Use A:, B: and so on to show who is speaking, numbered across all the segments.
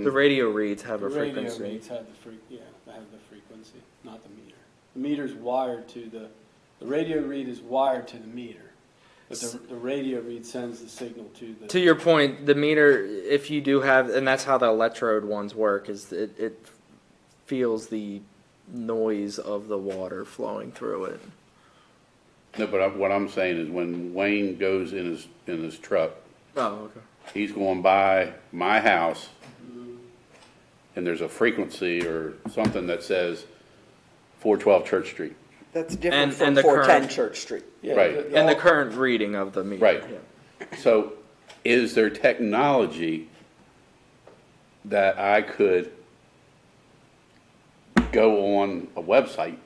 A: The radio reads have
B: The
A: a
B: radio
A: frequency.
B: reads have the freq, yeah, they have the frequency, not the meter. The meter's wired to the, the radio read is wired to the meter. But the, the radio read sends the signal to the.
A: To your point, the meter, if you do have, and that's how the electrode ones work, is it, it feels the noise of the water flowing through it.
C: No, but I- what I'm saying is when Wayne goes in his, in his truck,
A: Oh, okay.
C: he's going by my house and there's a frequency or something that says four twelve Church Street.
D: That's
A: And-
D: different
A: and
D: from
A: the
D: four ten
A: current-
D: Church Street.
B: Yeah,
C: right.
A: And the
B: all-
A: current reading of the meter.
C: Right.
A: yeah.
C: So is there technology that I could go on a website?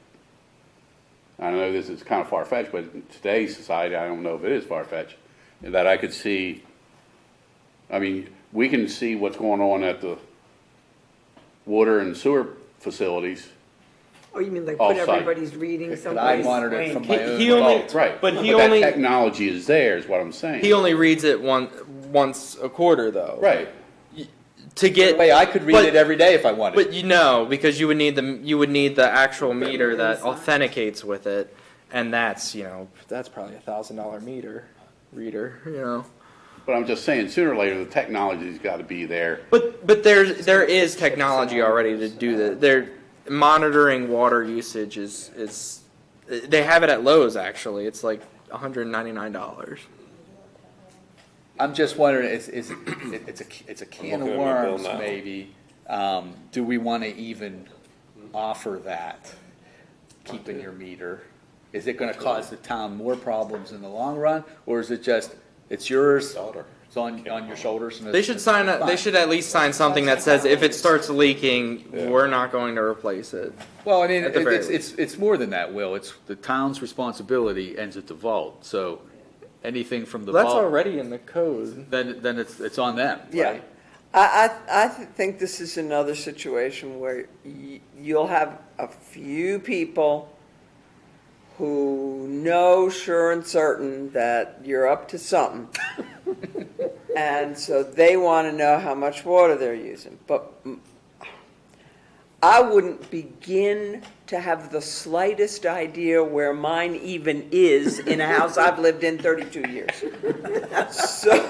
C: I know this is kind of far fetched, but in today's society, I don't know if it is far fetched, that I could see, I mean, we can see what's going on at the water and sewer facilities.
E: Oh, you mean like
C: All
E: what
C: site.
E: everybody's reading
F: And I
E: someplace?
F: monitor it
E: Wayne,
F: from
A: He,
F: my own.
A: he only,
C: Well, right.
A: Oh, but he
C: that
A: only,
C: technology is there, is what I'm saying.
A: he only reads it one, once a quarter though.
C: Right.
A: To get.
F: Hey, I could read
A: but-
F: it every day if I wanted.
A: But you know, because you would need the you would need the actual meter that authenticates with it, and that's you know that's probably a thousand dollar meter reader, you know.
C: But I'm just saying, sooner or later, the technology's got to be there.
A: But but there's there is technology already to do that. They're monitoring water usage is is they have it at Lowe's actually. It's like one hundred ninety nine dollars.
F: I'm just wondering, is, is, it- it's a, it's a can of
G: looking at my bill
F: worms,
G: now.
F: maybe. Um, do we want to even offer that, keeping your meter? Is it going to cause the town more problems in the long run, or is it just, it's yours, it's on, on your shoulders? and
A: They
F: it's-
A: should sign a, They
F: Fine.
A: should at least sign something that says if it starts leaking, we're not going to replace it.
F: Well, I mean,
A: At the
F: it-
A: very
F: it's, it's, it's more than that, Will. It's, the town's responsibility ends at the vault, so anything from the
A: That's
F: vault,
A: already in the code.
F: then, then it's, it's on them,
D: Yeah.
F: right?
D: I, I, I th- think this is another situation where y- you'll have a few people who know sure and certain that you're up to something. And so they want to know how much water they're using. But mm, I wouldn't begin to have the slightest idea where mine even is in a house I've lived in 32 years. So,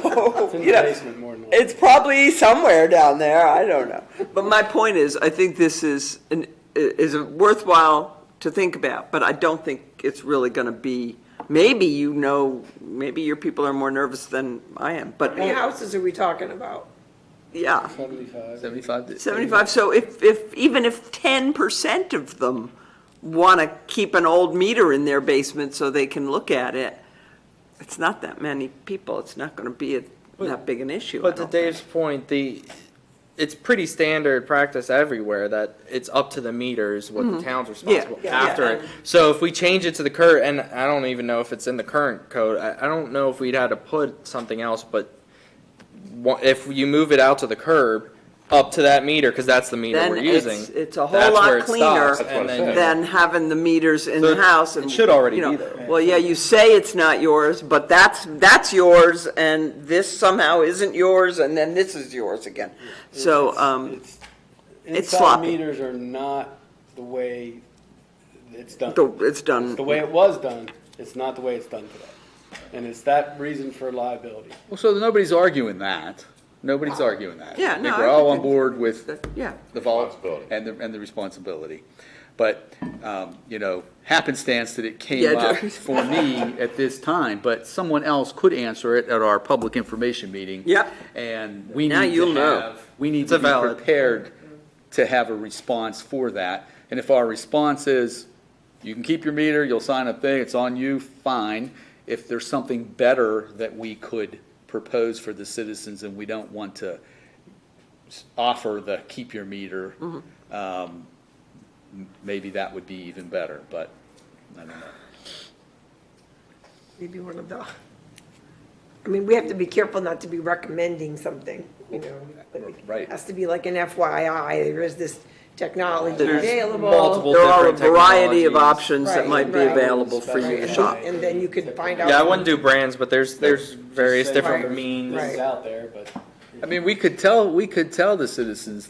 B: It's in
D: you
B: the
D: know,
B: basement more than likely.
D: it's probably somewhere down there. I don't know. But my point is, I think this is an, is worthwhile to think about, but I don't think it's really going to be. Maybe you know, maybe your people are more nervous than I am, but
E: How many houses are we talking about?
D: yeah,
B: Seventy-five.
F: Seventy-five to.
D: seventy-five. So if if even if ten percent of them want to keep an old meter in their basement so they can look at it, it's not that many people. It's not going to be a, that big an issue. I
A: But to
D: don't think.
A: Dave's point, the it's pretty standard practice everywhere that it's up to the meters what the town's responsible
D: Mm-hmm. Yeah.
A: after
D: Yeah.
A: it. So if we change it to the current, and I don't even know if it's in the current code. I, I don't know if we'd had to put something else, but wha- if you move it out to the curb, up to that meter because that's the meter
D: Then
A: we're
D: it's-
A: using.
D: it's a whole
A: that's
D: lot
A: where it
D: cleaner
A: stops, and
C: That's what I
A: then
C: said.
D: than having the meters in
A: So
D: the
A: it-
D: house.
A: it
D: and,
A: should already
D: you know,
A: be there.
D: Well, yeah, you say it's not yours, but that's, that's yours, and this somehow isn't yours, and then this is yours again. So,
B: It's-
D: um,
B: it's-
D: it's
B: inside
D: sloppy.
B: Meters are not the way it's done.
D: the- it's done.
B: The way it was done, it's not the way it's done today. And it's that reason for liability.
F: Well, so nobody's arguing that. Nobody's arguing that.
D: Yeah,
F: I
D: no,
F: think
D: I
F: we're all
D: think
F: on board with
D: that- Yeah,
F: the vault
C: Responsibility.
F: and the, and the responsibility. But, um, you know, happenstance that it
D: Yeah,
F: came up
D: Jerry.
F: for me at this time, but someone else could answer it at our public information meeting.
D: Yep.
F: And we
D: Now
F: need
D: you'll
F: to
D: know.
F: have, we need
A: It's
F: to be
A: valid.
F: prepared to have a response for that. And if our response is, you can keep your meter, you'll sign a thing, it's on you, fine. If there's something better that we could propose for the citizens and we don't want to s- offer the keep your meter,
A: Mm-hmm.
F: um, m- maybe that would be even better, but I don't know.
E: Maybe one of the, I mean, we have to be careful not to be recommending something, you know. but it
F: Right.
E: Has to be like an FYI, there is this technology
D: There's
E: available.
A: multiple
D: there are a
A: different
D: variety of
A: technologies.
D: options that
E: Right,
D: might be
E: right.
D: available for you to
B: Right.
D: shop.
E: And then you can find out.
A: Yeah, I wouldn't do brands, but there's there's various
B: Just say
A: different
E: Right.
A: means.
B: This is
E: Right.
B: out there, but
F: I mean, we could tell, we could tell the citizens